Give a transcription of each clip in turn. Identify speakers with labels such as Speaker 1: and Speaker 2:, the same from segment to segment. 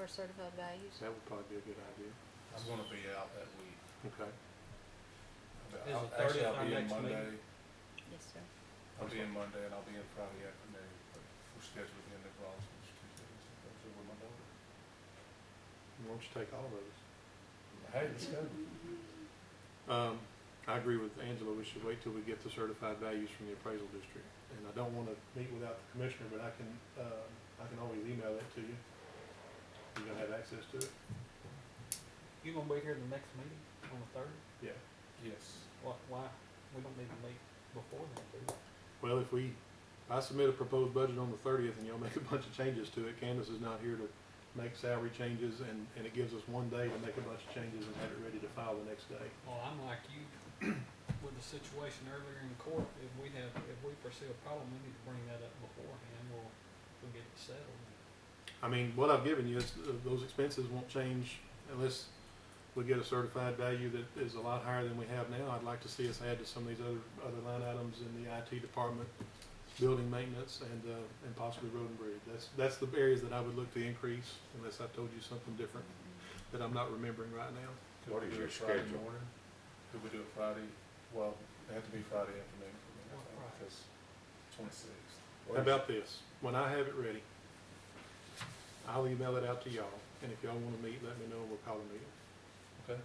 Speaker 1: our certified values.
Speaker 2: That would probably be a good idea.
Speaker 3: I'm gonna be out that week.
Speaker 2: Okay.
Speaker 3: I'll-
Speaker 4: Is the
Speaker 3: Actually,
Speaker 4: 30th
Speaker 3: I'll
Speaker 4: our
Speaker 3: be in
Speaker 4: next
Speaker 3: Monday,
Speaker 4: meeting?
Speaker 1: Yes, sir.
Speaker 3: I'll be in Monday and I'll be in Friday afternoon, but we're scheduled in the Bronx, which is Tuesday, so that's over my daughter.
Speaker 2: Why don't you take all those?
Speaker 3: Hey, it's good.
Speaker 2: Um, I agree with Angela, we should wait till we get the certified values from the appraisal district. And I don't want to meet without the commissioner, but I can, uh, I can always email that to you. You're gonna have access to it?
Speaker 4: You gonna be here the next meeting on the third?
Speaker 2: Yeah.
Speaker 3: Yes.
Speaker 4: Why, why, we don't need to meet before then, do we?
Speaker 2: Well, if we, I submit a proposed budget on the thirtieth and y'all make a bunch of changes to it, Candace is not here to make salary changes and, and it gives us one day to make a bunch of changes and have it ready to file the next day.
Speaker 4: Well, I'm like you with the situation earlier in court, if we have, if we foresee a problem, we need to bring that up beforehand, we'll, we'll get it settled.
Speaker 2: I mean, what I've given you is, uh, those expenses won't change unless we get a certified value that is a lot higher than we have now. I'd like to see us add to some of these other, other line items in the IT department, building maintenance, and, uh, and possibly road and bridge. That's, that's the areas that I would look to increase unless I told you something different that I'm not remembering right now.
Speaker 3: Could
Speaker 5: What
Speaker 3: we
Speaker 5: is
Speaker 3: do
Speaker 5: your
Speaker 3: it Friday
Speaker 5: schedule?
Speaker 3: morning? Could we do it Friday? Well, it had to be Friday afternoon for me, I
Speaker 4: What
Speaker 3: think,
Speaker 4: Friday?
Speaker 3: because twenty-sixth.
Speaker 2: How about this? When I have it ready, I'll email it out to y'all, and if y'all wanna meet, let me know, and we'll call a meeting.
Speaker 3: Okay.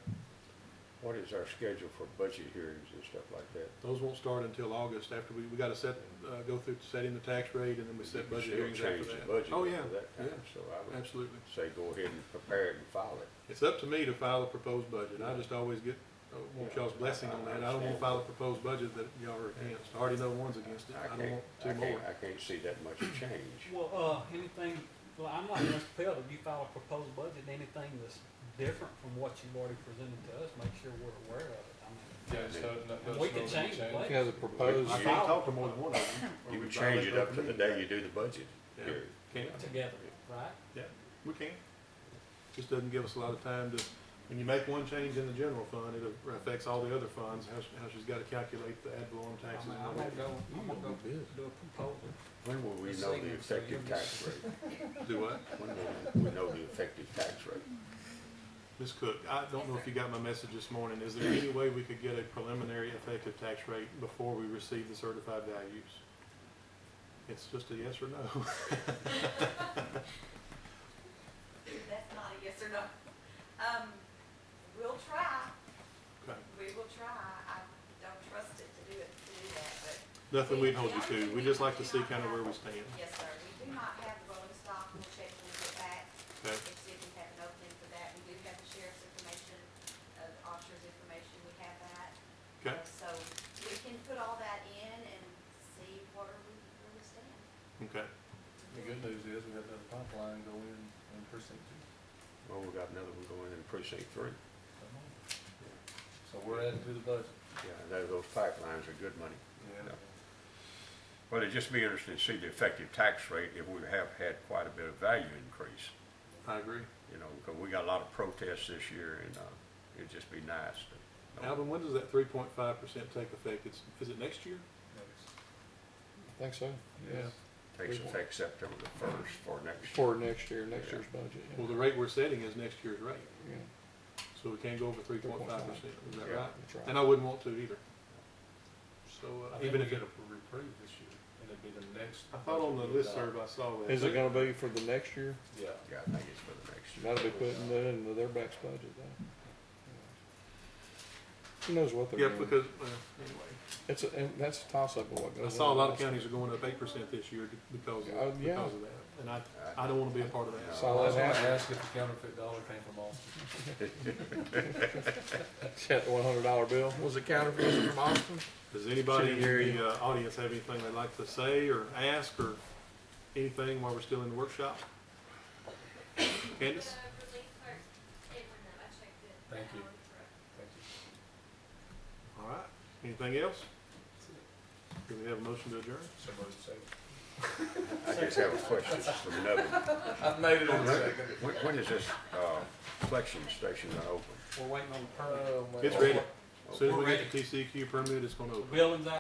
Speaker 5: What is our schedule for budget hearings and stuff like that?
Speaker 2: Those won't start until August after we, we gotta set, uh, go through setting the tax rate and then we set budget hearings after
Speaker 5: Change the
Speaker 2: that.
Speaker 5: budget
Speaker 2: Oh, yeah,
Speaker 5: for that
Speaker 2: yeah,
Speaker 5: time, so I would
Speaker 2: absolutely.
Speaker 5: say go ahead and prepare it and file it.
Speaker 2: It's up to me to file a proposed budget. I just always get, uh, want y'all's blessing on that. I don't wanna file a proposed budget that y'all are against. I already know one's against it.
Speaker 5: I
Speaker 2: I don't
Speaker 5: can't,
Speaker 2: want
Speaker 5: I
Speaker 2: two
Speaker 5: can't,
Speaker 2: more.
Speaker 5: I can't see that much change.
Speaker 4: Well, uh, anything, well, I'm like Mr. Pelt, if you file a proposed budget, anything that's different from what you've already presented to us, make sure we're aware of it. I mean,
Speaker 3: Yeah, so no- no-
Speaker 4: We
Speaker 3: so
Speaker 4: can
Speaker 3: we
Speaker 4: change the
Speaker 3: it.
Speaker 4: Yeah, the
Speaker 2: I
Speaker 5: proposed.
Speaker 2: can't talk to more than one of them. or we
Speaker 5: You would change
Speaker 2: violate
Speaker 5: it up to the
Speaker 2: open
Speaker 5: day
Speaker 2: meeting.
Speaker 5: you do the budget
Speaker 2: Yeah.
Speaker 5: hearing.
Speaker 2: Can't.
Speaker 4: together, right?
Speaker 2: Yeah, we can. Just doesn't give us a lot of time to, when you make one change in the general fund, it affects all the other funds, how, she- how she's gotta calculate the ad valorem
Speaker 4: I
Speaker 2: taxes.
Speaker 4: mean,
Speaker 2: and
Speaker 4: I'm
Speaker 2: all
Speaker 4: gonna
Speaker 2: that.
Speaker 4: go, I'm gonna go do a proposal.
Speaker 5: When will we
Speaker 4: Let's
Speaker 5: know
Speaker 4: see, so
Speaker 5: the
Speaker 4: you'll
Speaker 5: effective
Speaker 4: be-
Speaker 5: tax rate?
Speaker 2: Do what?
Speaker 5: When will we know the effective tax rate?
Speaker 2: Ms. Cook, I don't know if you got my message this morning. Is there any way we could get a preliminary effective tax rate before we receive the certified values? It's just a yes or no.
Speaker 6: That's not a yes or no. Um, we'll try,
Speaker 2: Okay.
Speaker 6: we will try. I don't trust it to do it, to do that,
Speaker 2: Nothing we'd hold you to. We'd just like to see kind of where we stand.
Speaker 6: but yes, sir, we do not have the rolling stock, we'll check when we get back.
Speaker 2: Okay.
Speaker 6: And see if we have an opening for that. We do have the sheriff's information, uh, the officer's information, we have that.
Speaker 2: Okay?
Speaker 6: Uh, So we can put all that in and see where we, where we stand.
Speaker 2: Okay.
Speaker 3: The good news is we have another pipeline go in in precinct
Speaker 5: Well, we got another one going in precinct three.
Speaker 3: two. So we're adding to the budget.
Speaker 5: Yeah, I know those pipelines are good money.
Speaker 3: Yeah.
Speaker 5: Well, it'd just be interesting to see the effective tax rate if we have had quite a bit of value increase.
Speaker 2: I agree.
Speaker 5: you know, because we got a lot of protests this year, and uh, it'd just be nice to. know.
Speaker 2: Alvin, when does that three point five percent take effect? It's, is it next year?
Speaker 3: Next.
Speaker 7: Think so,
Speaker 3: Yes.
Speaker 5: Takes effect September the first for next year.
Speaker 7: for next year, next year's budget. yeah.
Speaker 2: Well, the rate we're setting is next year's rate,
Speaker 7: Yeah.
Speaker 2: so we can't go over three point five percent, is that
Speaker 5: Yeah,
Speaker 2: right?
Speaker 7: that's right.
Speaker 2: And I wouldn't want to either. So,
Speaker 3: I
Speaker 2: uh,
Speaker 3: think we
Speaker 2: even if,
Speaker 3: get
Speaker 2: it-
Speaker 3: a reprieve this year, and it'd be the next.
Speaker 2: I thought on the listserv I saw that.
Speaker 7: Is it gonna be for the next year?
Speaker 3: Yeah.
Speaker 5: Yeah, I think it's for the next year.
Speaker 7: That'll be putting that into their back's budget though. Who knows what they're
Speaker 2: Yeah,
Speaker 7: doing?
Speaker 2: because, well, anyway.
Speaker 7: It's, a- and that's a toss-up of what goes on.
Speaker 2: I saw a lot of counties are going up eight percent this year because
Speaker 7: Oh,
Speaker 2: of,
Speaker 7: yeah.
Speaker 2: because of that, and I, I don't want to be a part of that.
Speaker 5: Yeah.
Speaker 7: Saw
Speaker 3: I
Speaker 7: that
Speaker 3: was gonna
Speaker 7: happen.
Speaker 3: ask if the counterfeit dollar came from Austin.
Speaker 7: Check the one hundred dollar bill. Was it counterfeit Was it from Austin?
Speaker 2: Does anybody in the uh, audience have anything they'd like to say or ask or anything while we're still in the workshop? Candace?
Speaker 8: The relief clerk, it went up, I checked it.
Speaker 3: Thank you.
Speaker 8: Um, for-
Speaker 3: Thank you.
Speaker 2: All right, anything else? Do we have a motion to adjourn?
Speaker 3: So moved, second.
Speaker 5: I just have a question from another.
Speaker 3: I made it in second.
Speaker 5: When, when is this uh, collection station gonna open?
Speaker 4: We're waiting on the permit.
Speaker 3: Oh, my
Speaker 2: It's
Speaker 3: God.
Speaker 2: ready. As Soon as we get the TCQ permit, it's going to
Speaker 4: The
Speaker 2: open.
Speaker 4: building's out